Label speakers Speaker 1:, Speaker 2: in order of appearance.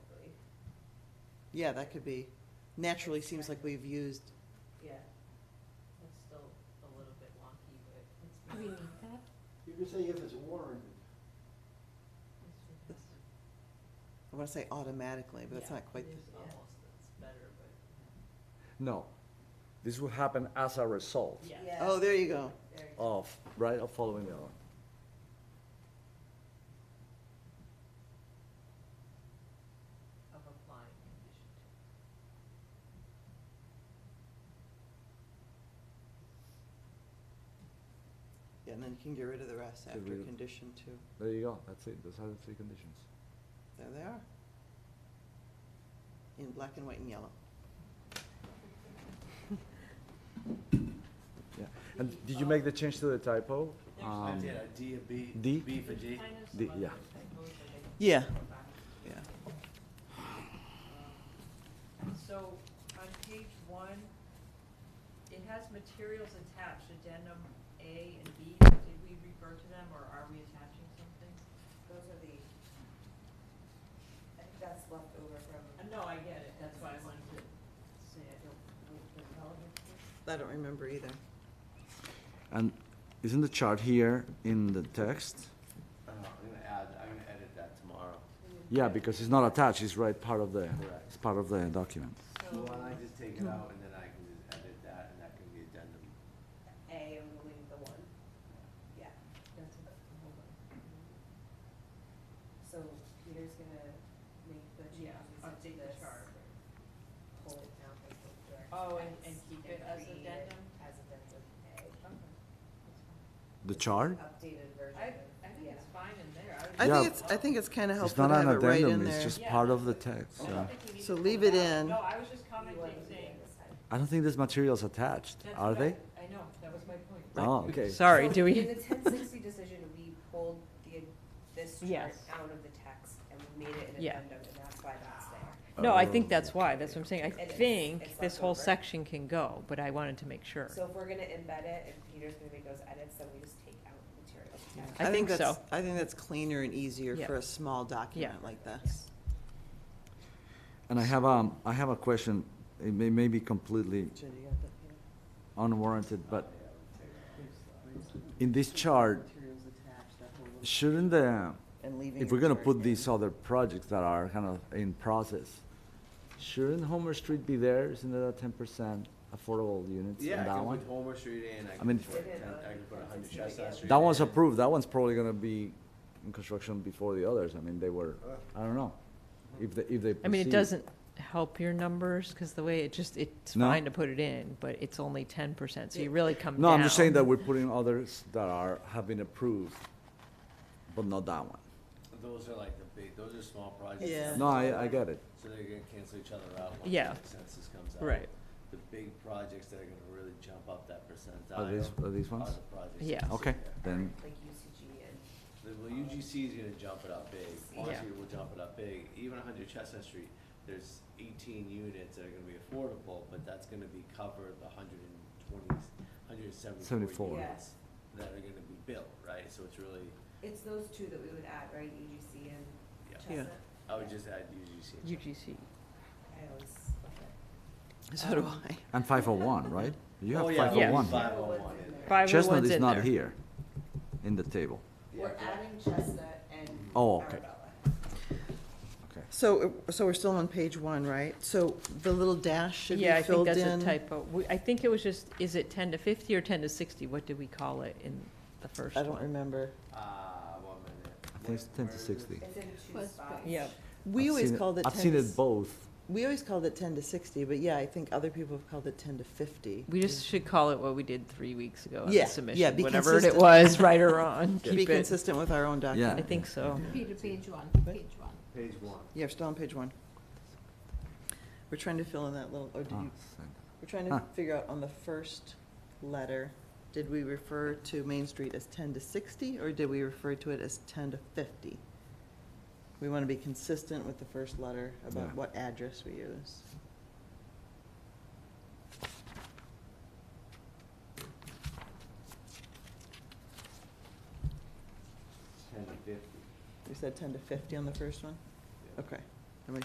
Speaker 1: Yeah, that could be. Naturally seems like we've used,
Speaker 2: Yeah, it's still a little bit wonky, but it's
Speaker 3: Do we
Speaker 2: been,
Speaker 3: need that?
Speaker 4: You could say if it's warranted.
Speaker 2: it's been tested.
Speaker 1: I want to say automatically, but that's
Speaker 2: Yeah,
Speaker 1: not quite.
Speaker 2: It
Speaker 1: the-
Speaker 2: is almost, it's better, but,
Speaker 5: No, this will happen as a result
Speaker 2: yeah.
Speaker 6: Yeah.
Speaker 1: Oh, there you go.
Speaker 2: There you go.
Speaker 5: of, right, of following the law.
Speaker 2: Of applying condition two.
Speaker 1: Yeah, and then you can get rid of the rest
Speaker 5: Get
Speaker 1: after
Speaker 5: rid of-
Speaker 1: condition two.
Speaker 5: There you go, that's it, those are the three conditions.
Speaker 1: There they are. In black and white and yellow.
Speaker 5: Yeah, and did you make the change to the typo?
Speaker 4: I
Speaker 5: Um,
Speaker 4: did, a D, a B,
Speaker 5: D?
Speaker 4: B for G.
Speaker 2: Kind of
Speaker 5: The-
Speaker 2: some
Speaker 5: yeah.
Speaker 2: others that goes with it.
Speaker 1: Yeah. Yeah.
Speaker 2: Um, So on page one, it has materials attached, addendum A and B. Did we refer to them or are we attaching something?
Speaker 6: Those are the, I think that's left over from.
Speaker 2: Uh, No, I get it. That's why I wanted to say I don't know if they're relevant to this.
Speaker 1: I don't remember either.
Speaker 5: And isn't the chart here in the text?
Speaker 4: I don't know, Uh, I'm gonna add, I'm gonna edit that tomorrow.
Speaker 5: Yeah, because it's not attached, it's right part of the,
Speaker 4: Correct.
Speaker 5: it's part of the document.
Speaker 2: So
Speaker 4: Well, why don't I just take it out and then I can just edit that and that can be addendum.
Speaker 6: A and we'll leave the one, yeah.
Speaker 2: that's a, hold on.
Speaker 6: So Peter's gonna make the
Speaker 2: Yeah,
Speaker 6: changes into
Speaker 2: update the
Speaker 6: this,
Speaker 2: chart.
Speaker 6: pull it down, like, the direct
Speaker 2: Oh, and-
Speaker 6: text,
Speaker 2: and keep it as
Speaker 6: create
Speaker 2: addendum?
Speaker 6: As addendum A.
Speaker 5: The chart?
Speaker 6: Updated version.
Speaker 2: I,
Speaker 6: of-
Speaker 2: I think
Speaker 6: yeah.
Speaker 2: it's fine in there. I
Speaker 1: I
Speaker 2: would-
Speaker 5: Yeah.
Speaker 1: think it's, I think it's kind of
Speaker 5: It's
Speaker 1: helpful
Speaker 5: not
Speaker 1: to
Speaker 5: an
Speaker 1: have it right in
Speaker 5: addendum, it's
Speaker 1: there.
Speaker 5: just
Speaker 2: Yeah.
Speaker 5: part of the text,
Speaker 2: I
Speaker 5: so.
Speaker 2: don't think we need
Speaker 1: So
Speaker 2: to
Speaker 1: leave
Speaker 2: pull
Speaker 1: it
Speaker 2: out.
Speaker 1: in.
Speaker 2: No, I was just
Speaker 6: You wanna leave
Speaker 2: commenting
Speaker 6: it
Speaker 2: saying,
Speaker 6: this time.
Speaker 5: I don't think there's materials attached,
Speaker 2: that's
Speaker 5: are they?
Speaker 2: right. I know, that was my point.
Speaker 5: Oh, okay.
Speaker 1: Sorry,
Speaker 6: So
Speaker 1: do we-
Speaker 6: In the ten sixty decision, we pulled the, this chart
Speaker 7: Yes.
Speaker 6: out of the text and we made it an
Speaker 7: Yeah.
Speaker 6: addendum, and that's why that's there.
Speaker 7: No, I
Speaker 5: Oh.
Speaker 7: think that's why, that's what I'm saying, I
Speaker 6: It is. It's
Speaker 7: think this
Speaker 6: left
Speaker 7: whole
Speaker 6: over.
Speaker 7: section can go, but I wanted to make sure.
Speaker 6: So if we're gonna embed it, and Peter's gonna make those edits, then we just take out material text.
Speaker 7: I think
Speaker 1: that's-
Speaker 7: so.
Speaker 1: I think that's cleaner and easier
Speaker 7: Yeah.
Speaker 1: for a small document like this.
Speaker 5: And I have, um, I have a question, it may, may be completely
Speaker 1: Jenny, you got that?
Speaker 5: unwarranted, but in this chart,
Speaker 1: Materials attached, that whole little-
Speaker 5: shouldn't the,
Speaker 1: And leaving.
Speaker 5: if
Speaker 1: your
Speaker 5: we're gonna
Speaker 1: chart
Speaker 5: put
Speaker 1: in.
Speaker 5: these other projects that are kind of in process, shouldn't Homer Street be there, isn't that ten percent affordable units in
Speaker 4: Yeah, I
Speaker 5: that
Speaker 4: can
Speaker 5: one?
Speaker 4: put Homer Street in, I
Speaker 5: I
Speaker 4: can
Speaker 5: mean-
Speaker 4: put, ten- I can put a hundred Chestnut Street.
Speaker 5: That one's
Speaker 4: in.
Speaker 5: approved, that one's probably gonna be in construction before the others, I mean, they were, I don't know, if they, if they
Speaker 7: I mean, it
Speaker 5: proceed.
Speaker 7: doesn't help your numbers, because the way it just, it's
Speaker 5: No.
Speaker 7: fine to put it in, but it's only ten percent, so you really come down.
Speaker 5: No, I'm just saying that we're putting others that are, have been approved, but not that one.
Speaker 4: Those are like the big, those are small projects.
Speaker 1: Yeah.
Speaker 5: No, I, I get it.
Speaker 4: So they're gonna cancel each other out once
Speaker 7: Yeah.
Speaker 4: the census comes out.
Speaker 7: Right.
Speaker 4: The big projects that are gonna really jump up that percentile.
Speaker 5: Are these- are these ones?
Speaker 4: the projects
Speaker 7: Yeah.
Speaker 4: that sit
Speaker 5: Okay,
Speaker 4: there.
Speaker 5: then,
Speaker 6: Like UCG and,
Speaker 4: The- Well, UGC is gonna jump it up big,
Speaker 6: Yeah.
Speaker 4: Honestly, will jump it up big, even hundred Chestnut Street, there's eighteen units that are gonna be affordable, but that's gonna be covered the hundred and twenty, hundred and seventy-four
Speaker 5: 74.
Speaker 4: units that are gonna be built, right, so it's really,
Speaker 6: it's those two that we would add, right, UGC and
Speaker 4: Yeah.
Speaker 1: Yeah.
Speaker 6: Chestnut?
Speaker 4: I would just add UGC. and Chestnut.
Speaker 7: UGC,
Speaker 6: I always,
Speaker 1: So do I.
Speaker 5: and five oh one, right? You have
Speaker 4: Oh,
Speaker 5: five oh
Speaker 7: yeah.
Speaker 5: one.
Speaker 4: Five oh one in there.
Speaker 7: five oh
Speaker 5: Chestnut
Speaker 7: one's
Speaker 5: is
Speaker 7: in
Speaker 5: not
Speaker 7: there.
Speaker 5: here, in the table.
Speaker 4: Yeah,
Speaker 6: we're
Speaker 4: yeah.
Speaker 6: adding Chestnut and
Speaker 5: Oh, okay.
Speaker 6: Arabella.
Speaker 5: Okay.
Speaker 1: So, so we're still on page one, right? So the little dash should be
Speaker 7: Yeah, I think
Speaker 1: filled in.
Speaker 7: that's a typo, We- I think it was just, is it ten to fifty or ten to sixty, what did we call it in the first
Speaker 1: I
Speaker 7: one?
Speaker 1: don't remember.
Speaker 4: Ah, one minute.
Speaker 5: I think it's
Speaker 4: Where-
Speaker 5: ten
Speaker 4: where
Speaker 5: to
Speaker 4: is
Speaker 5: sixty.
Speaker 6: It's in two
Speaker 1: First
Speaker 6: spots.
Speaker 7: Yeah,
Speaker 1: We
Speaker 5: I've
Speaker 1: always
Speaker 5: seen
Speaker 1: called it
Speaker 5: I've
Speaker 1: 10
Speaker 5: seen
Speaker 1: to
Speaker 5: it
Speaker 1: s-
Speaker 5: both.
Speaker 1: We always called it 10 to 60, but yeah, I think other people have called it 10 to 50.
Speaker 7: we just should call it what we did three weeks ago on
Speaker 1: Yeah, yeah,
Speaker 7: the submission,
Speaker 1: be
Speaker 7: whatever it
Speaker 1: consistent.
Speaker 7: was, right or wrong,
Speaker 1: To be
Speaker 7: keep it,
Speaker 1: consistent with our own document.
Speaker 7: I think
Speaker 5: Oh,
Speaker 7: so.
Speaker 3: Peter, page one, page one.
Speaker 4: Page one.
Speaker 1: Yeah, we're still on page one. We're trying to fill in that little, or did
Speaker 5: Ah,
Speaker 1: you,
Speaker 5: same.
Speaker 1: we're trying
Speaker 5: Huh.
Speaker 1: to figure out on the first letter, did we refer to Main Street as 10 to 60, or did we refer to it as 10 to 50? We want to be consistent with the first letter about
Speaker 5: Yeah.
Speaker 1: what address we use.
Speaker 4: Ten to fifty.
Speaker 1: We said 10 to 50 on the first one?
Speaker 4: yeah.
Speaker 1: Okay.